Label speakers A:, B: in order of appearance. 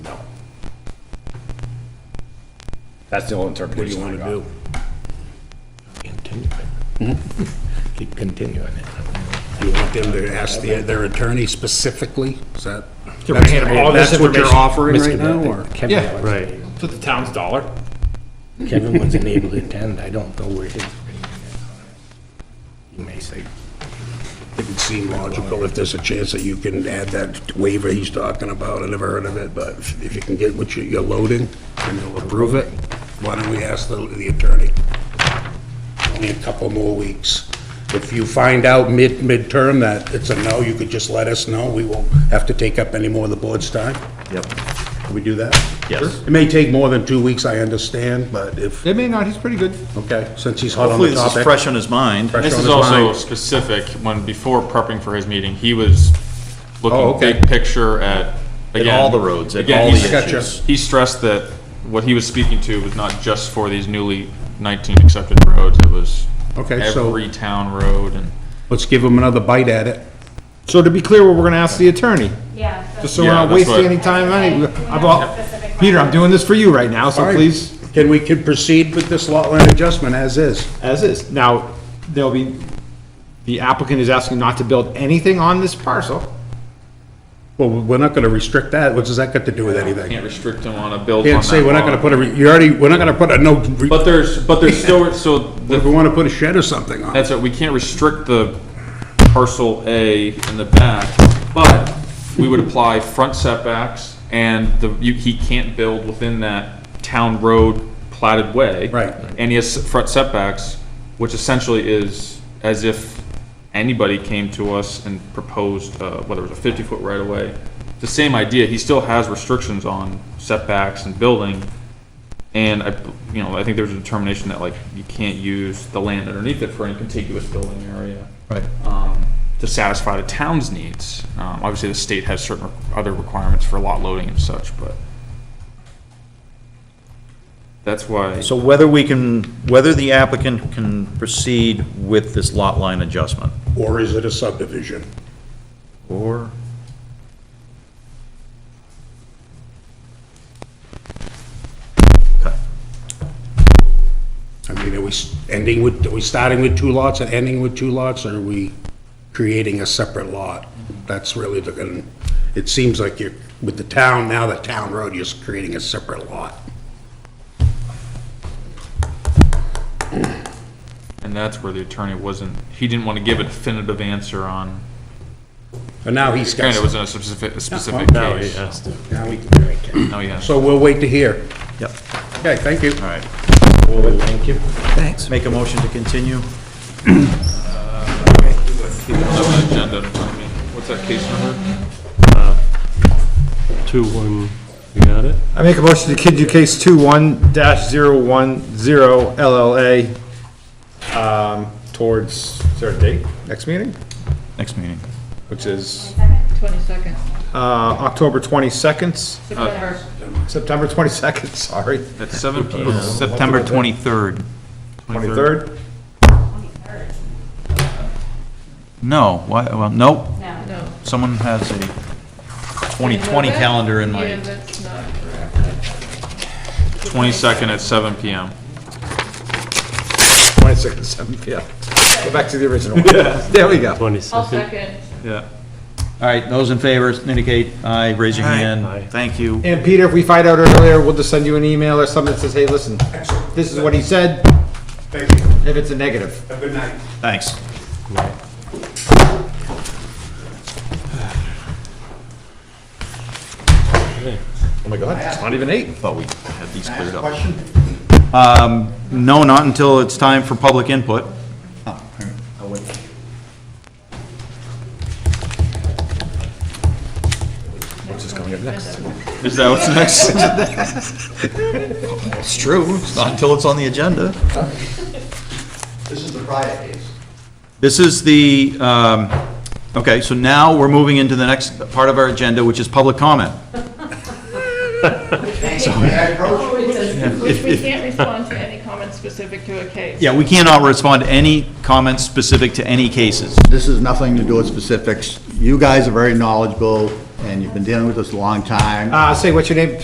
A: That's the only
B: What do you
A: interpretation I
B: want to
A: got.
B: do?
C: Continue it. Keep continuing it.
B: Do you want them to ask the- their attorney specifically? Is that,
C: They're gonna hand them all this
B: that's what you're
C: information.
B: offering right
C: Misconduct.
B: now, or?
C: Kevin
B: Yeah,
C: wasn't
D: Right.
C: able-
D: For the town's dollar.
C: Kevin wasn't able to attend, I don't know where his. You may say,
B: It would seem logical if there's a chance that you can add that waiver he's talking about. I never heard of it, but if if you can get what you- you're loading and they'll approve it, why don't we ask the the attorney? Only a couple more weeks. If you find out mid, midterm that it's a no, you could just let us know. We won't have to take up any more of the board's time.
D: Yep.
B: Can we do that?
D: Yes.
B: It may take more than two weeks, I understand, but if,
E: It may not, he's pretty good.
B: okay, since he's hot on
F: Hopefully
B: the
F: this is
B: topic.
F: fresh on his mind.
B: Fresh
D: This
B: on
D: is
B: his
D: also
B: mind.
D: specific, when, before prepping for his meeting, he was
B: Oh,
D: looking
B: okay.
D: big picture at,
F: At
D: again.
F: all the roads, at
D: Again,
F: all the
D: he's-
B: Gotcha.
F: issues.
D: He stressed that what he was speaking to was not just for these newly 19 accepted roads, it was
B: Okay, so-
D: every town road and.
B: Let's give him another bite at it.
E: So to be clear, we're gonna ask the attorney,
G: Yeah.
E: just so we're
G: so-
D: Yeah,
E: not
D: that's
E: wasting
D: what-
E: any time, money.
G: Okay, we
E: I'm
G: have
E: all-
G: a specific
E: Peter, I'm
G: one.
E: doing this for you right now,
B: All
E: so
B: right.
E: please.
B: Can we, can proceed with this lot line adjustment as is?
E: As is. Now, there'll be, the applicant is asking not to build anything on this parcel.
B: Well, we're not gonna restrict that, what does that got to do with
D: Can't
B: anything?
D: restrict him on a build on
B: Can't say
D: that
B: we're not gonna
D: lot.
B: put a, re- you already, we're not gonna put a no, re-
D: But there's, but there's still, so the
B: if we wanna put a shed or something on it.
D: That's it, we can't restrict the parcel A in the back, but we would apply front setbacks, and the, you, he can't build within that town road platted way.
B: Right.
D: And he has front setbacks, which essentially is as if anybody came to us and proposed, uh, whether it was a fifty-foot right-of-way. The same idea, he still has restrictions on setbacks and building, and I, you know, I think there's a determination that like you can't use the land underneath it for any contiguous building area.
E: Right.
D: Um, to satisfy the town's needs. Um, obviously, the state has certain other requirements for lot loading and such, but that's why.
F: So whether we can, whether the applicant can proceed with this lot line adjustment,
B: Or is it a subdivision?
F: or
B: I mean, are we s- ending with, are we starting with two lots and ending with two lots, or are we creating a separate lot? That's really the, and it seems like you're, with the town, now the town road, you're just creating a separate lot.
D: And that's where the attorney wasn't, he didn't want to give a definitive answer on,
B: And now he's got.
D: granted, it was in a specific, a specific case.
B: Now we can-
D: No, yeah.
B: So we'll wait to hear.
F: Yep.
B: Okay, thank you.
F: All right.
C: thank you.
F: Thanks. Make a motion to continue.
D: Agenda in front of me. What's that case number?
H: Two, one, you got it?
E: I make a motion to continue case two one dash zero one zero LLA, um, towards, is there a date, next meeting?
F: Next meeting.
E: Which is,
G: Twenty-second.
E: uh, October twenty-second,
G: September.
E: September twenty-second, sorry,
D: At seven P M.
F: September 23rd.
E: twenty-third.
G: Twenty-third.
F: No, why, well, nope,
G: No. No.
F: someone has a 2020 calendar in my,
G: that's not.
D: Twenty-second at seven P M.
E: Twenty-second, seven P M. Go back to the original one. There we go.
G: I'll
H: Twenty-second.
G: second.
D: Yeah.
F: all right, those in favor indicate aye, raise your
H: Aye.
F: hand. Thank you.
E: And Peter, if we find out earlier, we'll just send you an email or something that says, hey, listen, this is what he said,
B: Thank you.
E: if it's a negative.
B: Have a good night.
F: Thanks.
E: Oh my God, it's not even eight.
F: Thought we had these cleared up. Um, No, not until it's time for public input. Oh,
D: Is that what's next?
F: It's true. It's not until it's on the agenda. This is the riot case. This is the, um, okay, so now we're moving into the next part of our agenda, which is public comment.
G: Which we can't respond to any comments specific to a case.
F: Yeah, we cannot respond to any comments specific to any cases.
I: This is nothing to do with specifics. You guys are very knowledgeable, and you've been dealing with this a long time.
E: Uh, say, what's your name?